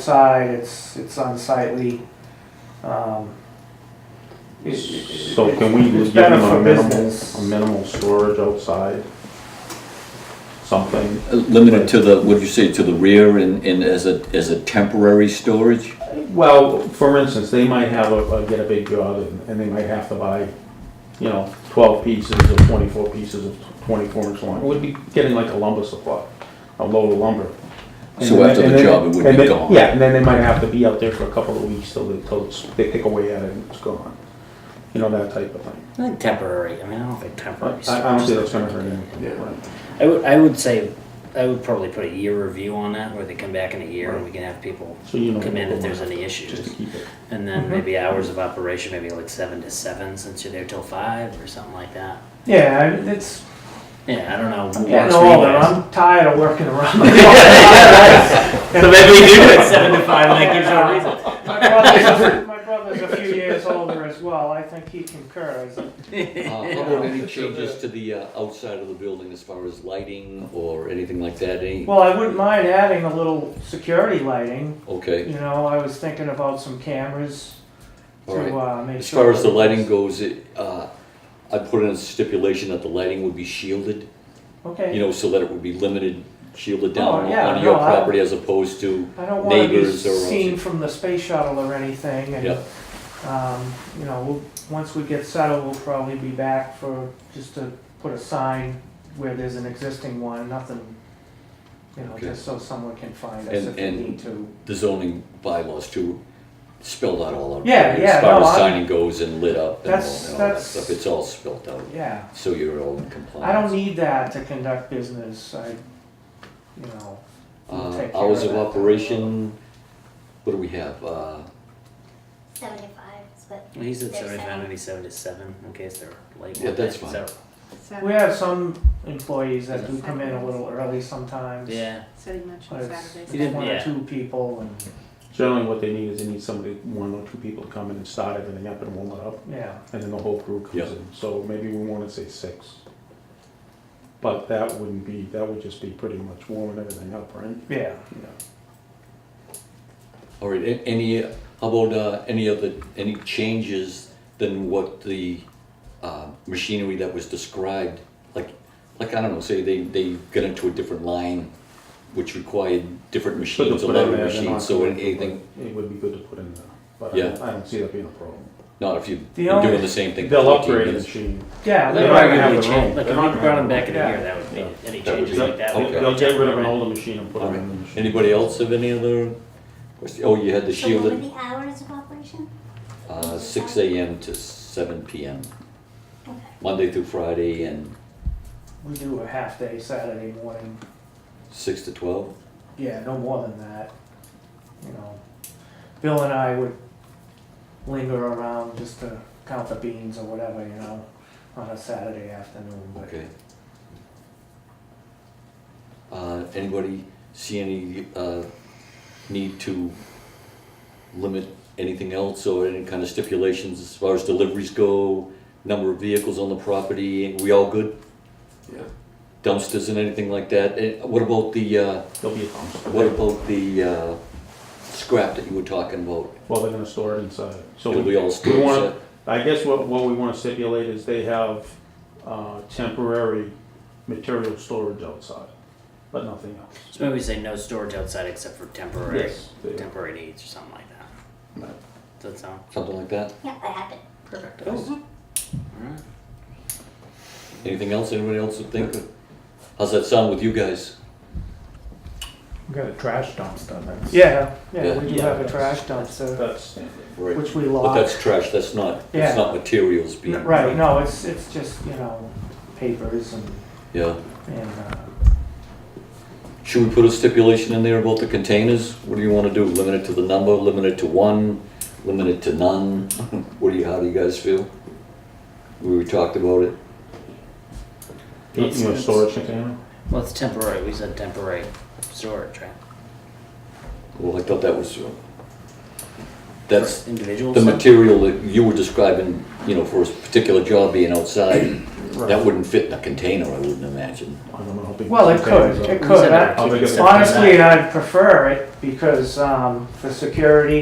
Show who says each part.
Speaker 1: outside, it's, it's unsightly. Um, it- it-
Speaker 2: So can we
Speaker 1: it's
Speaker 2: give them
Speaker 1: better for
Speaker 2: a minimal,
Speaker 1: business.
Speaker 2: a minimal storage outside? Something,
Speaker 3: Limited to the, what'd you say, to the rear and, and as a, as a temporary storage?
Speaker 2: well, for instance, they might have a, a- get a big job and- and they might have to buy, you know, twelve pieces or twenty-four pieces of twenty-four inch line. We'd be getting like a lumber supply, a load of lumber. And
Speaker 3: So
Speaker 2: then-
Speaker 3: after the
Speaker 2: and then-
Speaker 3: job, it would
Speaker 2: and
Speaker 3: be
Speaker 2: then-
Speaker 3: gone.
Speaker 2: Yeah, and then they might have to be out there for a couple of weeks till they, till it's- they pick away at it and it's gone. You know, that type of thing.
Speaker 4: Not temporary. I mean, I don't think
Speaker 2: I,
Speaker 4: temporary.
Speaker 2: I don't see that's
Speaker 4: storage.
Speaker 2: gonna hurt anything.
Speaker 4: I would, I would say, I would probably put a year review on that, where they come back in a year and we can have people
Speaker 2: So you know.
Speaker 4: come in if there's any
Speaker 2: Just to
Speaker 4: issues.
Speaker 2: keep it.
Speaker 4: And then
Speaker 5: Mm-hmm.
Speaker 4: maybe hours of operation, maybe like seven to seven, since you're there till five or something like that.
Speaker 1: Yeah, I mean, it's,
Speaker 4: Yeah, I don't know. what
Speaker 1: getting
Speaker 4: works for you
Speaker 1: older,
Speaker 4: guys.
Speaker 1: I'm tired of working around the clock.
Speaker 4: So maybe we do it seven to five, and that gives her a reason.
Speaker 1: My brother's- My brother's a few years older as well, I think he concurs.
Speaker 3: How about any changes to the uh, outside of the building as far as lighting or anything like that, any?
Speaker 1: Well, I wouldn't mind adding a little security lighting,
Speaker 3: Okay,
Speaker 1: you know, I was thinking about some cameras
Speaker 3: all
Speaker 1: to,
Speaker 3: right.
Speaker 1: uh, make sure.
Speaker 3: As far as the
Speaker 1: that-
Speaker 3: lighting goes, it, uh, I put in a stipulation that the lighting would be shielded,
Speaker 1: Okay.
Speaker 3: you know, so that it would be limited, shielded
Speaker 1: Oh,
Speaker 3: down
Speaker 1: yeah,
Speaker 3: on your
Speaker 1: no, I-
Speaker 3: property as opposed to,
Speaker 1: I don't want to be
Speaker 3: neighbors or
Speaker 1: seen
Speaker 3: else-
Speaker 1: from the space shuttle or anything, and,
Speaker 3: Yep.
Speaker 1: um, you know, we'll- once we get settled, we'll probably be back for, just to put a sign where there's an existing one, nothing, you know,
Speaker 3: Okay.
Speaker 1: just so someone can find us
Speaker 3: And-
Speaker 1: if they
Speaker 3: and-
Speaker 1: need to.
Speaker 3: the zoning bylaws too, spelled out all out.
Speaker 1: Yeah, yeah,
Speaker 3: As far
Speaker 1: no,
Speaker 3: as
Speaker 1: I'm-
Speaker 3: signing goes and lit up and all and
Speaker 1: That's-
Speaker 3: all that
Speaker 1: that's-
Speaker 3: stuff, it's all spelled out,
Speaker 1: Yeah,
Speaker 3: so you're all in compliance.
Speaker 1: I don't need that to conduct business, I, you know, we'll
Speaker 3: Uh,
Speaker 1: take care
Speaker 3: hours
Speaker 1: of
Speaker 3: of
Speaker 1: that.
Speaker 3: operation, what do we have, uh,
Speaker 5: Seventy-five is what
Speaker 4: Well, He said
Speaker 5: There's
Speaker 4: seventy-five,
Speaker 5: seven.
Speaker 4: maybe seven to seven, in case they're late.
Speaker 3: Yeah,
Speaker 4: one
Speaker 3: that's
Speaker 4: night,
Speaker 3: fine.
Speaker 4: so-
Speaker 1: We have some employees that do come in a little early sometimes.
Speaker 4: Yeah,
Speaker 6: Saturday much
Speaker 1: But
Speaker 6: on
Speaker 1: it's
Speaker 4: You
Speaker 6: Saturdays.
Speaker 4: didn't-
Speaker 1: one or
Speaker 4: yeah.
Speaker 1: two people and,
Speaker 2: Generally, what they need is they need somebody, one or two people to come in and start everything up and warm it up,
Speaker 1: yeah,
Speaker 2: and then the whole crew comes
Speaker 3: Yeah.
Speaker 2: in. So maybe we want to say six. But that wouldn't be, that would just be pretty much warming everything up, right?
Speaker 1: yeah.
Speaker 2: Yeah.
Speaker 3: all right, a- any, how about, uh, any other, any changes than what the, uh, machinery that was described? Like, like, I don't know, say they, they got into a different line, which required different
Speaker 2: Good to
Speaker 3: machines, a
Speaker 2: put
Speaker 3: lot
Speaker 2: in
Speaker 3: of
Speaker 2: there, they're not
Speaker 3: machines, so
Speaker 2: doing it,
Speaker 3: anything,
Speaker 2: but It would be good to put in there, but I
Speaker 3: Yeah.
Speaker 2: don't- I don't see that being a problem.
Speaker 3: not if you've
Speaker 1: The
Speaker 3: been
Speaker 1: only-
Speaker 3: doing the same thing for
Speaker 2: They'll
Speaker 3: fourteen
Speaker 2: upgrade the
Speaker 3: minutes.
Speaker 2: machine.
Speaker 1: Yeah,
Speaker 2: They
Speaker 4: They
Speaker 1: we-
Speaker 2: don't
Speaker 4: might
Speaker 2: have
Speaker 4: really
Speaker 2: their own.
Speaker 4: change, like,
Speaker 2: They're
Speaker 4: if
Speaker 2: not
Speaker 4: we
Speaker 2: gonna
Speaker 4: brought
Speaker 2: have
Speaker 4: them back in
Speaker 1: their
Speaker 4: a
Speaker 1: own.
Speaker 4: year, that would be, any
Speaker 3: That would
Speaker 4: changes
Speaker 3: be-
Speaker 4: like that. would
Speaker 2: They'll
Speaker 4: be
Speaker 3: Okay.
Speaker 2: they'll get rid of an
Speaker 4: temporary.
Speaker 2: older machine and put
Speaker 3: All
Speaker 2: in a
Speaker 3: right.
Speaker 2: new machine.
Speaker 3: Anybody else have any other question? Oh, you had the
Speaker 5: So what were
Speaker 3: shielded,
Speaker 5: the hours of operation?
Speaker 3: uh, six AM to seven PM,
Speaker 5: Okay.
Speaker 3: Monday through Friday and
Speaker 1: we do a half day Saturday morning,
Speaker 3: six to twelve?
Speaker 1: yeah, no more than that, you know. Bill and I would linger around just to count the beans or whatever, you know, on a Saturday afternoon, but.
Speaker 3: Okay. Uh, anybody see any, uh, need to limit anything else or any kind of stipulations as far as deliveries go? Number of vehicles on the property, we all good?
Speaker 2: Yeah.
Speaker 3: Dumpsters and anything like that? And what about the, uh,
Speaker 2: There'll be a dumpster.
Speaker 3: What about the uh, scrap that you were talking about?
Speaker 2: Well, they're gonna store it inside. So
Speaker 3: It'll be all
Speaker 2: We
Speaker 3: stored
Speaker 2: wanna-
Speaker 3: inside?
Speaker 2: I guess what, what we wanna stipulate is they have, uh, temporary material storage outside, but nothing else.
Speaker 4: So maybe we say no storage outside except for temporary,
Speaker 2: Yes, they-
Speaker 4: temporary needs or something like that.
Speaker 2: Right.
Speaker 4: Does that sound?
Speaker 3: Something like that?
Speaker 5: Yeah, that happened.
Speaker 4: Perfect. Alright.
Speaker 3: Anything else, anybody else would think? of? How's that sound with you guys?
Speaker 7: We got a trash dumpster that's.
Speaker 1: Yeah, yeah,
Speaker 3: Yeah.
Speaker 1: we do
Speaker 2: Yeah,
Speaker 1: have a
Speaker 2: that's-
Speaker 1: trash dumpster,
Speaker 2: That's standard.
Speaker 3: Right.
Speaker 1: which we
Speaker 3: But
Speaker 1: lock.
Speaker 3: that's trash, that's not,
Speaker 1: Yeah.
Speaker 3: it's not materials being.
Speaker 1: N- Right, no, it's, it's just, you know, papers and,
Speaker 3: Yeah.
Speaker 1: and, uh,
Speaker 3: Should we put a stipulation in there about the containers? What do you want to do? Limit it to the number, limit it to one, limit it to none? What do you, how do you guys feel? We talked about it.
Speaker 2: You
Speaker 4: It's-
Speaker 2: know,
Speaker 4: it's-
Speaker 2: storage container?
Speaker 4: Well, it's temporary, we said temporary storage, right?
Speaker 3: Well, I thought that was, uh, that's,
Speaker 4: For individuals.
Speaker 3: The
Speaker 4: so-
Speaker 3: material that you were describing, you know, for a particular job being outside, that wouldn't fit in a container, I wouldn't imagine.
Speaker 2: I don't know how big.
Speaker 1: well, it
Speaker 2: containers
Speaker 1: could,
Speaker 2: are.
Speaker 1: it
Speaker 4: We said
Speaker 1: could. I-
Speaker 4: that we
Speaker 2: I'll
Speaker 4: keep
Speaker 2: make
Speaker 4: it
Speaker 2: a-
Speaker 4: separate.
Speaker 1: Honestly, I'd prefer it because, um, for security